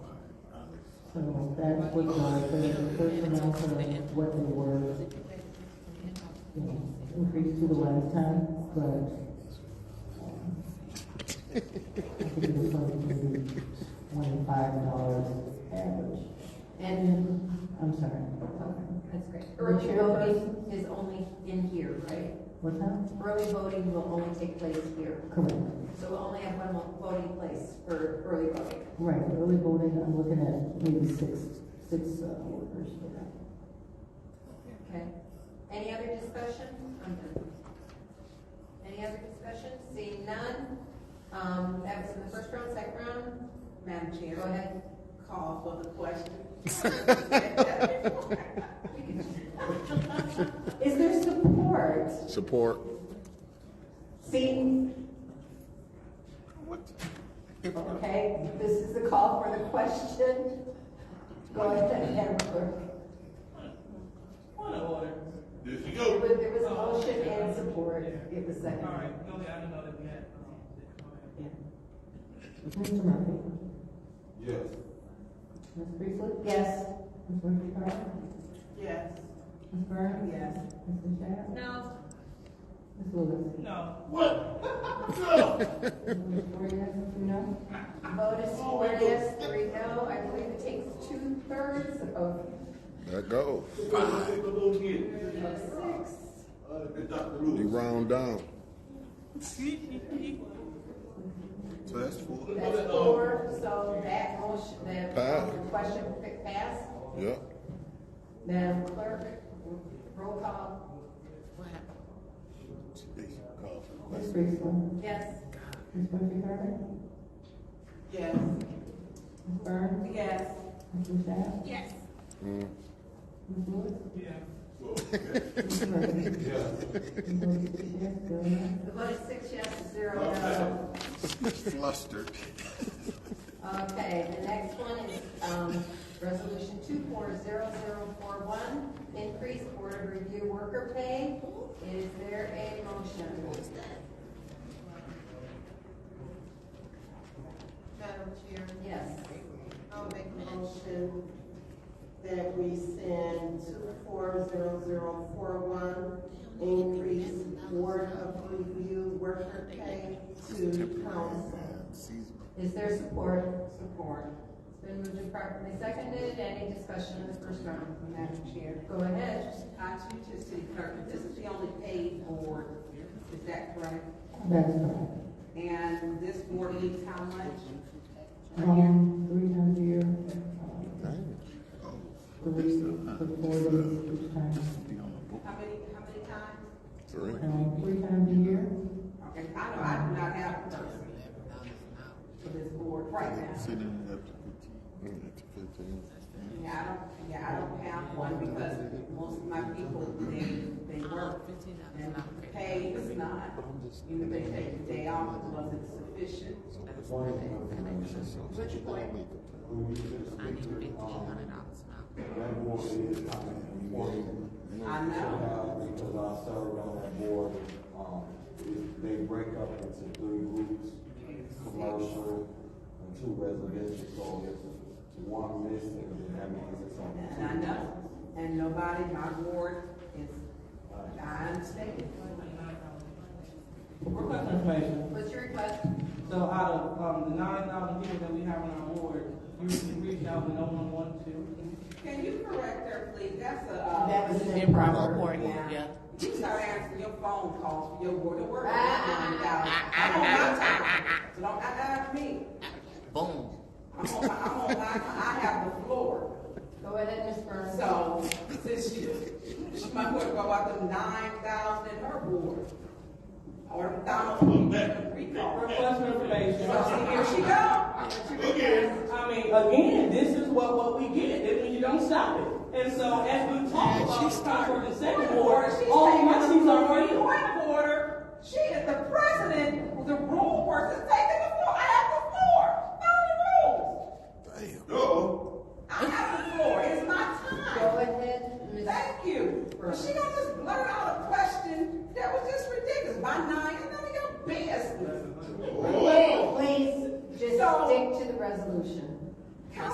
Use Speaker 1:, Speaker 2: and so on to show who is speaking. Speaker 1: So that's what my, the personnel, for what they were, you know, increased to the last time, but I think it was something maybe twenty-five dollars average.
Speaker 2: And,
Speaker 1: I'm sorry,
Speaker 2: okay, that's great.
Speaker 1: Early
Speaker 2: Early voting is only in here, right?
Speaker 1: what's that?
Speaker 2: Early voting will only take place here.
Speaker 1: Correct.
Speaker 2: So we'll only have one mo- voting place for early voting.
Speaker 1: Right, early voting, I'm looking at maybe six, six uh, workers for that.
Speaker 2: Okay. Any other discussion? I'm done. Any other discussion? Seeing none. Um, that was in the first round, second round.
Speaker 3: Madam Chair,
Speaker 2: Go ahead.
Speaker 3: call for the question. Is there support?
Speaker 4: Support.
Speaker 3: See? Okay, this is the call for the question. Go ahead, Madam Clerk.
Speaker 5: Point of order.
Speaker 6: There she
Speaker 3: There
Speaker 6: goes.
Speaker 3: was there was a motion and support. It was
Speaker 5: All
Speaker 3: second.
Speaker 5: right, go ahead, I didn't know that we had. um,
Speaker 3: Yeah.
Speaker 1: Mr. Murphy?
Speaker 6: Yes.
Speaker 1: Ms. Priestley?
Speaker 3: Yes.
Speaker 1: Ms. Murphy Carter?
Speaker 5: Yes.
Speaker 1: Ms. Burns?
Speaker 3: Yes.
Speaker 1: Mr. Shad?
Speaker 2: No.
Speaker 1: Ms. Lewis?
Speaker 5: No,
Speaker 6: What? No.
Speaker 1: Ms. Flores, you know?
Speaker 2: Vote is
Speaker 5: Oh,
Speaker 2: four yes, three no. I believe it takes two-thirds of
Speaker 4: There go.
Speaker 6: Five. Take a little bit.
Speaker 2: six.
Speaker 6: Uh, Dr.
Speaker 4: You
Speaker 6: Lewis.
Speaker 4: round down. So that's four.
Speaker 2: That's four,
Speaker 5: um,
Speaker 2: so that motion, that
Speaker 4: Pass.
Speaker 2: the question fa- passed.
Speaker 4: Yep.
Speaker 2: Madam Clerk, roll call.
Speaker 4: Jeez, cough.
Speaker 1: Ms. Priestley?
Speaker 2: Yes.
Speaker 1: Ms. Murphy Carter?
Speaker 3: Yes.
Speaker 1: Ms. Burns?
Speaker 3: Yes.
Speaker 1: Mr. Shad?
Speaker 2: Yes.
Speaker 4: Mm.
Speaker 1: Ms. Lewis?
Speaker 5: yeah.
Speaker 1: Ms. Murphy?
Speaker 6: Yes.
Speaker 1: Ms. Lewis, Mr. Shad, Bill Nye?
Speaker 2: The vote is six yes, zero no.
Speaker 4: Flustered.
Speaker 2: Okay, the next one is, um, resolution two four zero zero four one, increase board of review worker pay. Is there a motion?
Speaker 3: Madam Chair,
Speaker 2: Yes.
Speaker 3: I'll make a motion that we send two four zero zero four one, increase board of review worker pay to council.
Speaker 2: Is there support?
Speaker 3: Support.
Speaker 2: It's been moved and properly seconded. Any discussion in the first round?
Speaker 3: Madam Chair.
Speaker 2: Go ahead.
Speaker 3: I too, to city clerk, this is the only paid board, is that correct?
Speaker 1: That is correct.
Speaker 3: And this board needs how much?
Speaker 1: Um, three times a year. um, Three, the four days each time.
Speaker 3: How many, how many times?
Speaker 4: Three.
Speaker 1: Um, three times a year.
Speaker 3: Okay, I know, I do not have a person for this board right now.
Speaker 4: Mm.
Speaker 3: Yeah, I don't, yeah, I don't have one because most of my people, they, they work. And the pay is not, you know, they take the day off, it wasn't sufficient. What's your point?
Speaker 7: That board is not important.
Speaker 3: I know.
Speaker 7: uh, Because I served on that board, um, it- they break up into three groups, commercial and two residential, so if one missing, then that means it's on.
Speaker 3: And I know, and nobody, my ward is, I understand.
Speaker 5: Request information.
Speaker 2: What's your request?
Speaker 5: So out of, um, the nine thousand people that we have on our board, you reached out and no one wanted to.
Speaker 3: Can you correct her, please? That's a, uh.
Speaker 2: That was an
Speaker 3: improper reporting, yeah. You start answering your phone calls for your board of work. I'm on my time, so don't ask me. Boom. I'm on, my- I'm on, my- I have the floor.
Speaker 2: Go ahead, Ms. Burns.
Speaker 3: So, since you, she might want to go out to nine thousand in her board. Or a thousand, we can recall.
Speaker 5: Request information.
Speaker 3: So, see, here she go. Here she
Speaker 6: Okay.
Speaker 3: goes.
Speaker 5: I mean, again, this is what, what we get, and when you don't stop it. And so as we talk about the Concord and Second Ward, all my she's already.
Speaker 3: Point of order. She is the president, the rule person, take